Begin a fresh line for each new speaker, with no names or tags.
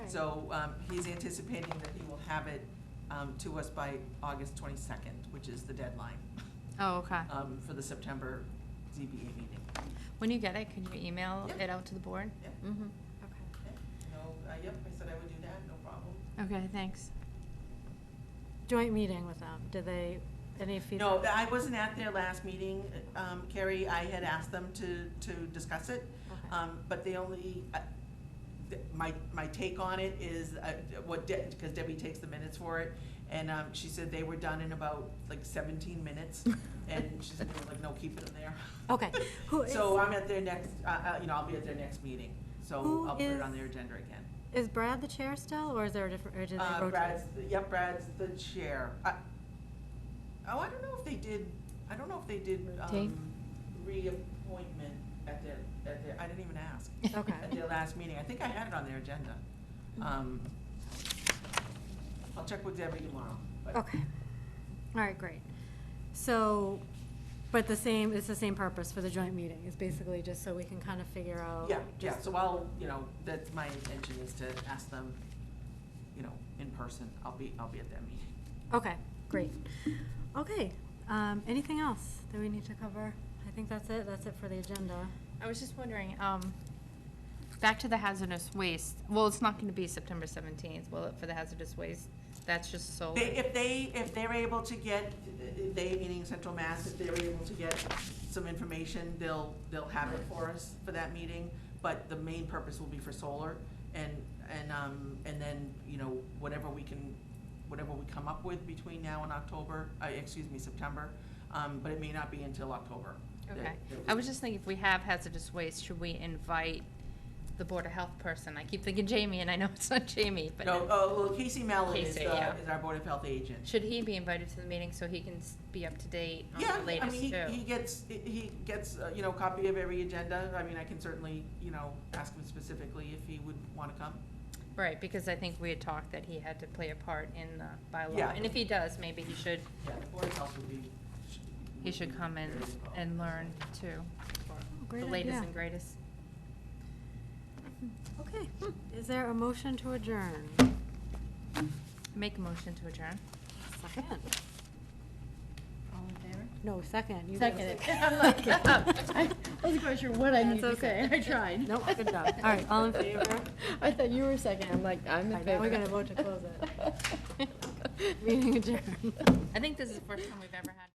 so um, he's anticipating that he will have it um, to us by August 22nd, which is the deadline
Oh, okay.
um, for the September ZBA meeting.
When you get it, can you email
Yeah.
it out to the board?
Yeah.
Mm-hmm.
Okay, No, uh, yep, I said I would do that, no problem.
Okay. Okay, thanks.
Joint meeting with them, did they, any feedback?
No, I wasn't at their last meeting, um, Carrie, I had asked them to, to discuss it,
Okay.
um, but the only, uh, th- my, my take on it is, uh, what, because Debbie takes the minutes for it, and, um, she said they were done in about, like, seventeen minutes, and she said, like, no, keep it in there.
Okay, who is,
So I'm at their next, uh, uh, you know, I'll be at their next meeting, so
Who
I'll put it on
is-
their agenda again.
is Brad the chair still, or is there a different, or did they
Uh,
rotate?
Brad's, yep, Brad's the chair. I- Oh, I don't know if they did, I don't know if they did,
Dave?
um, reappointment at their, at their, I didn't even ask.
Okay. Hmm.
At their last meeting. I think I had it on their agenda. Um, I'll check with Debbie tomorrow, but.
Okay, all right, great. So, but the same, it's the same purpose for the joint meeting, it's basically just so we can kind of figure out.
Yeah, yeah,
just-
so I'll, you know, that's my intention is to ask them, you know, in person. I'll be, I'll be at that meeting.
Okay, great. Okay, um, anything else that we need to cover? I think that's it, that's it for the agenda.
I was just wondering, um, back to the hazardous waste, well, it's not gonna be September seventeenth, will it, for the hazardous waste? That's just so.
They, if they, if they're able to get, they, meaning Central Mass, if they're able to get some information, they'll, they'll have it for us for that meeting. But the main purpose will be for solar and, and, um, and then, you know, whatever we can, whatever we come up with between now and October, uh, excuse me, September. Um, but it may not be until October.
Okay, I was just thinking, if we have hazardous waste, should we invite the Board of Health person? I keep thinking Jamie, and I know it's not Jamie, but.
No, oh, well, Casey Mallon is,
Casey,
the
yeah.
is our Board of Health agent.
Should he be invited to the meeting so he can s- be up to date
Yeah,
on the
I
latest
mean,
too?
he, he gets, he gets, uh, you know, copy of every agenda, I mean, I can certainly, you know, ask him specifically if he would wanna come.
Right, because I think we had talked that he had to play a part in the
Yeah.
bylaw, and if he does, maybe he should,
Yeah, the Board of Health would be.
he should come in and learn too, the
Great
latest
idea.
and greatest.
Okay, hmm. is there a motion to adjourn?
Make a motion to adjourn.
Second.
All in favor?
No, second. You gotta
Second it.
say-
I'm like, I wasn't quite sure what I
That's
needed to
okay.
say. I tried.
Nope, good job. All right, all in favor?
I thought you were second. I'm like, I'm
All
in
right,
favor.
now we gotta vote to close
it.
Meeting adjourned.
I think this is the first time we've ever had.